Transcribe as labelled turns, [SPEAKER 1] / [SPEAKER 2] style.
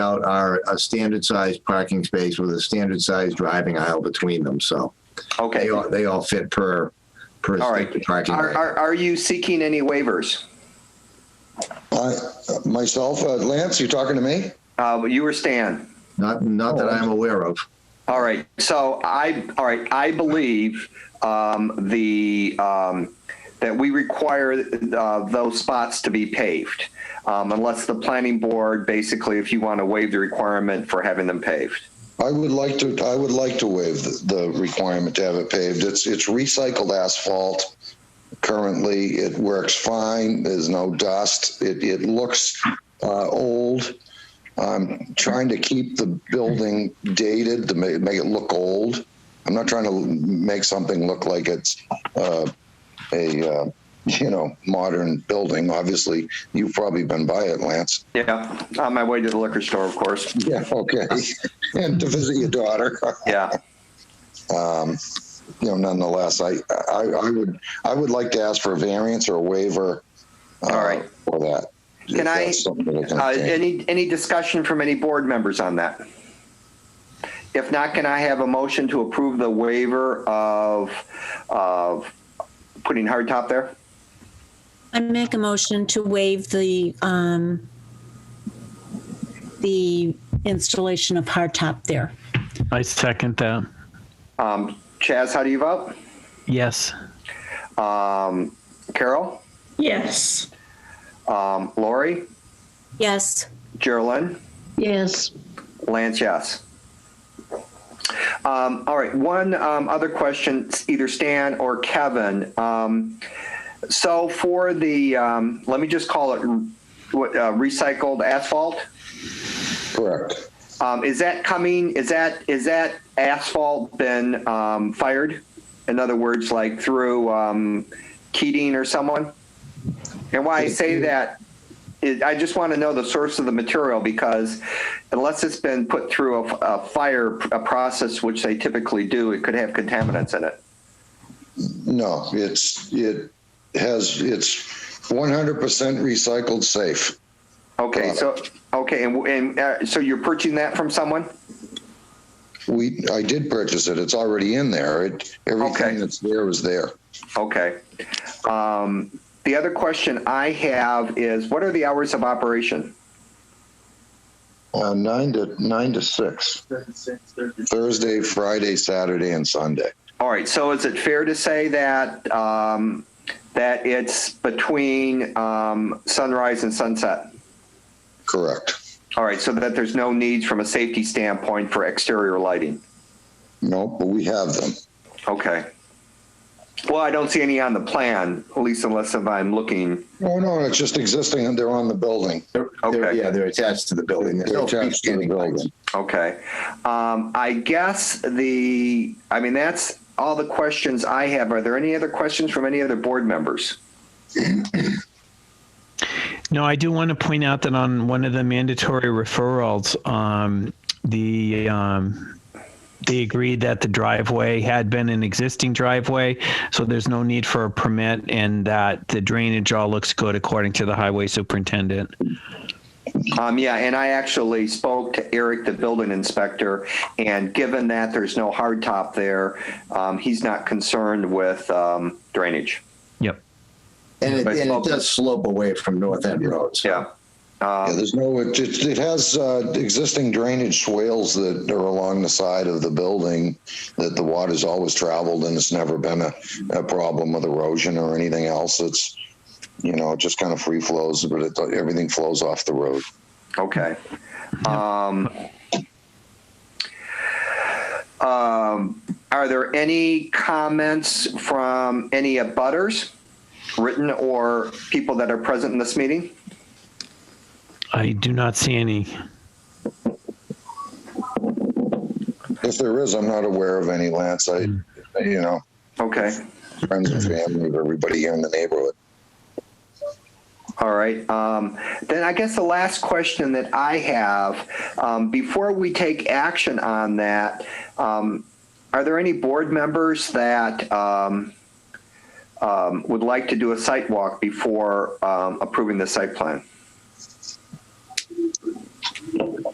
[SPEAKER 1] out are a standard sized parking space with a standard sized driving aisle between them. So
[SPEAKER 2] Okay.
[SPEAKER 1] they all, they all fit per, per
[SPEAKER 2] All right.
[SPEAKER 1] standard parking.
[SPEAKER 2] Are,
[SPEAKER 1] area.
[SPEAKER 2] are, are you seeking any waivers?
[SPEAKER 3] I, myself, uh, Lance, you talking to me?
[SPEAKER 2] Uh, you or Stan?
[SPEAKER 1] Not, not that I'm aware of.
[SPEAKER 2] All right. So I, all right, I believe um, the, um, that we require uh, those spots to be paved, um, unless the planning board, basically, if you want to waive the requirement for having them paved.
[SPEAKER 3] I would like to, I would like to waive the- the requirement to have it paved. It's, it's recycled asphalt. Currently, it works fine. There's no dust. It, it looks uh, old. I'm trying to keep the building dated to make, make it look old. I'm not trying to make something look like it's uh, a, uh, you know, modern building. Obviously, you've probably been by it, Lance.
[SPEAKER 2] Yeah, on my way to the liquor store, of course.
[SPEAKER 3] Yeah, okay. And to visit your daughter.
[SPEAKER 2] Yeah.
[SPEAKER 3] Um, You know, nonetheless, I, I, I would, I would like to ask for a variance or a waiver. uh,
[SPEAKER 2] All right.
[SPEAKER 3] For that. If
[SPEAKER 2] Can I-
[SPEAKER 3] that's something that can
[SPEAKER 2] Uh,
[SPEAKER 3] change.
[SPEAKER 2] Any, any discussion from any board members on that? If not, can I have a motion to approve the waiver of, of putting hardtop there?
[SPEAKER 4] I make a motion to waive the, um, the installation of hardtop there.
[SPEAKER 5] I second that.
[SPEAKER 2] Um, Chaz, how do you vote?
[SPEAKER 5] Yes.
[SPEAKER 2] Um, Carol?
[SPEAKER 6] Yes.
[SPEAKER 2] Um, Lori?
[SPEAKER 4] Yes,
[SPEAKER 2] Geraldine?
[SPEAKER 6] Yes.
[SPEAKER 2] Lance, yes. Um, all right, one um, other question, either Stan or Kevin. Um, so for the, um, let me just call it what, uh, recycled asphalt.
[SPEAKER 3] Correct.
[SPEAKER 2] Um, is that coming? Is that is that asphalt been um, fired? In other words, like through um, Keating or someone? And why I say that, is I just want to know the source of the material because unless it's been put through a, a fire a process, which they typically do, it could have contaminants in it.
[SPEAKER 3] No, it's, it has, it's one hundred percent recycled safe.
[SPEAKER 2] Okay, so okay, and, and uh, so you're purchasing that from someone?
[SPEAKER 3] We, I did purchase it. It's already in there. It,
[SPEAKER 2] Okay.
[SPEAKER 3] everything that's there is there.
[SPEAKER 2] Okay. Um, the other question I have is, what are the hours of operation?
[SPEAKER 3] Uh, nine to, nine to six. Thursday, Friday, Saturday and Sunday.
[SPEAKER 2] All right, so is it fair to say that, um, that it's between, um, sunrise and sunset?
[SPEAKER 3] Correct.
[SPEAKER 2] All right, so that there's no needs from a safety standpoint for exterior lighting?
[SPEAKER 3] No, but we have them.
[SPEAKER 2] Okay. Well, I don't see any on the plan, at least unless if I'm looking,
[SPEAKER 3] No, no, it's just existing and they're on the building.
[SPEAKER 1] They're- they're-
[SPEAKER 2] Okay.
[SPEAKER 1] Yeah, they're attached to the building. There's
[SPEAKER 3] They're
[SPEAKER 1] no
[SPEAKER 3] attached to the
[SPEAKER 1] freestanding
[SPEAKER 3] building.
[SPEAKER 1] lights.
[SPEAKER 2] okay. Um, I guess the, I mean, that's all the questions I have. Are there any other questions from any other board members?
[SPEAKER 5] No, I do want to point out that on one of the mandatory referrals, um, the um, they agreed that the driveway had been an existing driveway, so there's no need for a permit, and that the drainage all looks good according to the highway superintendent.
[SPEAKER 2] Um, yeah, and I actually spoke to Eric, the building inspector, and given that there's no hard top there, um, he's not concerned with um, drainage.
[SPEAKER 5] Yep.
[SPEAKER 1] And it,
[SPEAKER 2] But-
[SPEAKER 1] and it does slope away from North End Road. so-
[SPEAKER 2] Yeah.
[SPEAKER 3] Yeah,
[SPEAKER 2] Um,
[SPEAKER 3] there's no, it, it it has uh, existing drainage swales that are along the side of the building that the water's always traveled and it's never been a, a problem with erosion or anything else. It's, you know, it just kind of free flows, but it, everything flows off the road.
[SPEAKER 2] okay. Um, um, are there any comments from any abutters, written or people that are present in this meeting?
[SPEAKER 5] I do not see any.
[SPEAKER 3] If there is, I'm not aware of any, Lance. I, you know,
[SPEAKER 2] Okay.
[SPEAKER 3] friends and family of everybody here in the neighborhood.
[SPEAKER 2] All right. Um, then I guess the last question that I have um, before we take action on that, um, are there any board members that um, um, would like to do a site walk before um, approving the site plan?